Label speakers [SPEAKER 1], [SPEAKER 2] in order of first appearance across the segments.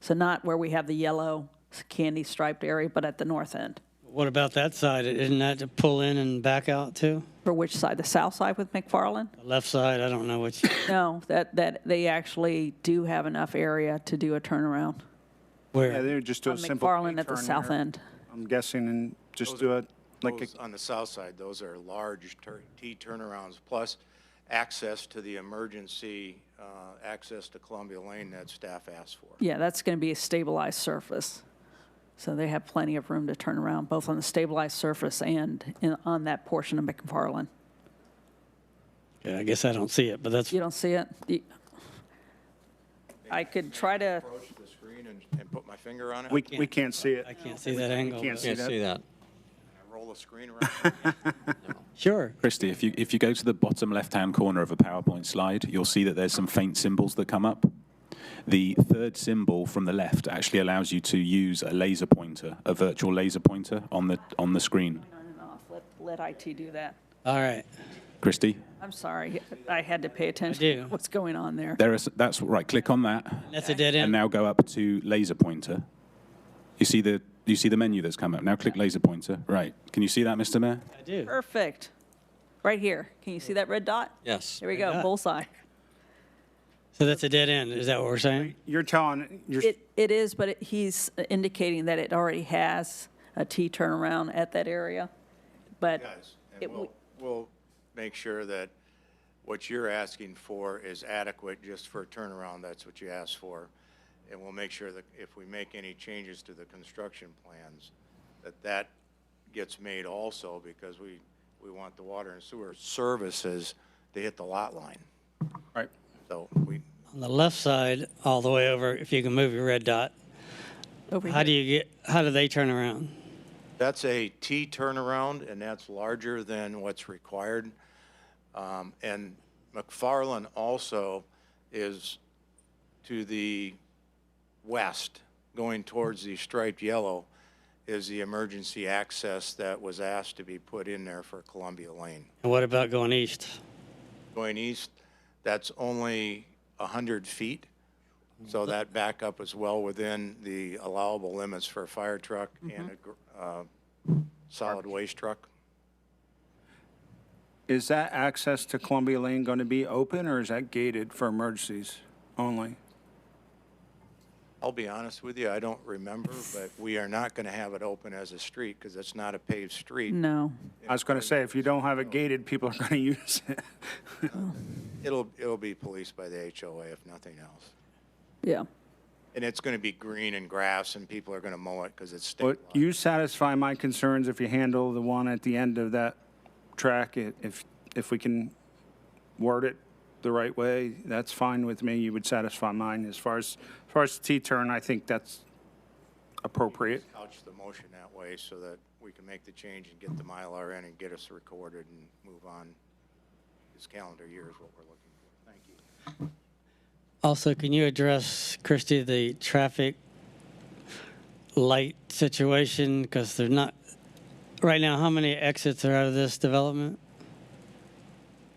[SPEAKER 1] So not where we have the yellow candy striped area, but at the north end.
[SPEAKER 2] What about that side? Isn't that to pull in and back out too?
[SPEAKER 1] For which side? The south side with McFarland?
[SPEAKER 2] The left side, I don't know which.
[SPEAKER 1] No, that, that, they actually do have enough area to do a turnaround.
[SPEAKER 3] Yeah,
[SPEAKER 2] Where?
[SPEAKER 3] they would just do
[SPEAKER 1] On
[SPEAKER 3] a simple
[SPEAKER 1] McFarland at the
[SPEAKER 3] U-turn
[SPEAKER 1] south
[SPEAKER 3] there,
[SPEAKER 1] end.
[SPEAKER 3] I'm guessing, and just do it like,
[SPEAKER 4] Those
[SPEAKER 3] a-
[SPEAKER 4] on the south side, those are large tur- T turnarounds, plus access to the emergency, uh, access to Columbia Lane that staff asked for.
[SPEAKER 1] Yeah, that's going to be a stabilized surface. So they have plenty of room to turn around, both on the stabilized surface and in, on that portion of McFarland.
[SPEAKER 2] Yeah, I guess I don't see it, but that's,
[SPEAKER 1] You don't see it? You- I could try to,
[SPEAKER 4] Approach the screen and, and put my finger on it,
[SPEAKER 3] we, we can't see it.
[SPEAKER 2] I can't see that angle.
[SPEAKER 3] can't
[SPEAKER 2] but-
[SPEAKER 3] see
[SPEAKER 5] Can't
[SPEAKER 3] that?
[SPEAKER 5] see that.
[SPEAKER 4] and roll the screen around.
[SPEAKER 2] Sure.
[SPEAKER 6] Christy, if you, if you go to the bottom left-hand corner of a PowerPoint slide, you'll see that there's some faint symbols that come up. The third symbol from the left actually allows you to use a laser pointer, a virtual laser pointer on the, on the screen.
[SPEAKER 1] let, let IT do that.
[SPEAKER 2] All right.
[SPEAKER 6] Christy,
[SPEAKER 1] I'm sorry, I had to pay attention
[SPEAKER 2] do.
[SPEAKER 1] to what's going on there.
[SPEAKER 6] there is, that's, right, click on that
[SPEAKER 2] That's a dead
[SPEAKER 6] and
[SPEAKER 2] end.
[SPEAKER 6] now go up to laser pointer. You see the, you see the menu that's come up. Now click laser pointer. Right. Can you see that, Mr. Mayor?
[SPEAKER 2] I do.
[SPEAKER 1] Perfect. Right here. Can you see that red dot?
[SPEAKER 5] Yes.
[SPEAKER 1] There we go,
[SPEAKER 2] dot.
[SPEAKER 1] bullseye.
[SPEAKER 2] So that's a dead end. Is that what we're saying?
[SPEAKER 3] You're telling, you're,
[SPEAKER 1] It, it is, but it- he's indicating that it already has a T turnaround at that area. But
[SPEAKER 4] Guys,
[SPEAKER 1] It
[SPEAKER 4] and we'll,
[SPEAKER 1] w-
[SPEAKER 4] we'll make sure that what you're asking for is adequate just for a turnaround, that's what you asked for. And we'll make sure that if we make any changes to the construction plans, that that gets made also, because we, we want the water and sewer services to hit the lot line.
[SPEAKER 6] Right.
[SPEAKER 4] So we,
[SPEAKER 2] On the left side, all the way over, if you can move your red dot,
[SPEAKER 1] over
[SPEAKER 2] how do
[SPEAKER 1] here,
[SPEAKER 2] you get, how do they turn around?
[SPEAKER 4] That's a T turnaround, and that's larger than what's required. Um, And McFarland also is to the west, going towards the striped yellow, is the emergency access that was asked to be put in there for Columbia Lane.
[SPEAKER 2] And what about going east?
[SPEAKER 4] Going east, that's only 100 feet, so that backup is well within the allowable limits for a fire truck and a gr- uh, solid waste truck.
[SPEAKER 3] is that access to Columbia Lane going to be open or is that gated for emergencies only?
[SPEAKER 4] I'll be honest with you, I don't remember, but we are not going to have it open as a street because it's not a paved street.
[SPEAKER 1] no.
[SPEAKER 3] I was going to say, if you don't have it gated, people are going to use it.
[SPEAKER 4] It'll, it'll be policed by the HOA if nothing else.
[SPEAKER 1] Yeah.
[SPEAKER 4] And it's going to be green and grass and people are going to mow it because it's state law.
[SPEAKER 3] But you satisfy my concerns if you handle the one at the end of that track, i- if, if we can word it the right way, that's fine with me, you would satisfy mine. As far as, as far as the T-turn, I think that's appropriate.
[SPEAKER 4] Couch the motion that way so that we can make the change and get the Mylar in and get us recorded and move on. This calendar year is what we're looking for. Thank you.
[SPEAKER 2] Also, can you address, Christie, the traffic light situation? Because they're not, right now, how many exits are out of this development?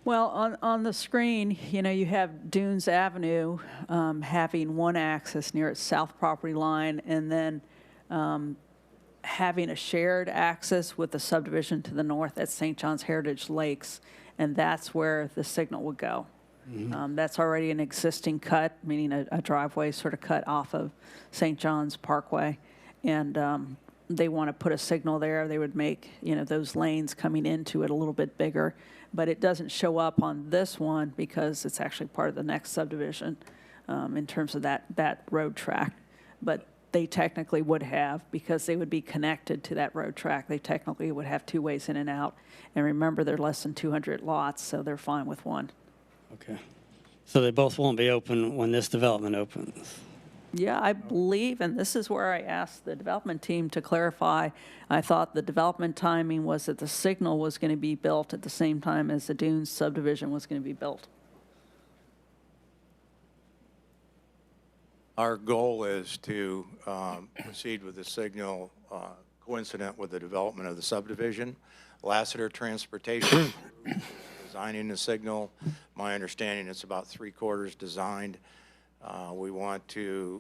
[SPEAKER 1] Well, on, on the screen, you know, you have Dunes Avenue um, having one access near its south property line and then um, having a shared access with the subdivision to the north at St. John's Heritage Lakes. And that's where the signal would go. Um, That's already an existing cut, meaning a a driveway sort of cut off of St. John's Parkway. And um, they want to put a signal there. They would make, you know, those lanes coming into it a little bit bigger. But it doesn't show up on this one because it's actually part of the next subdivision um, in terms of that, that road track. But they technically would have because they would be connected to that road track. They technically would have two ways in and out. And remember, they're less than 200 lots, so they're fine with one.
[SPEAKER 2] Okay. So they both won't be open when this development opens.
[SPEAKER 1] Yeah, I believe, and this is where I asked the development team to clarify. I thought the development timing was that the signal was going to be built at the same time as the Dunes subdivision was going to be built.
[SPEAKER 4] Our goal is to um, proceed with the signal uh, coincident with the development of the subdivision. Lassiter Transportation is designing the signal. My understanding, it's about three quarters designed. Uh, We want to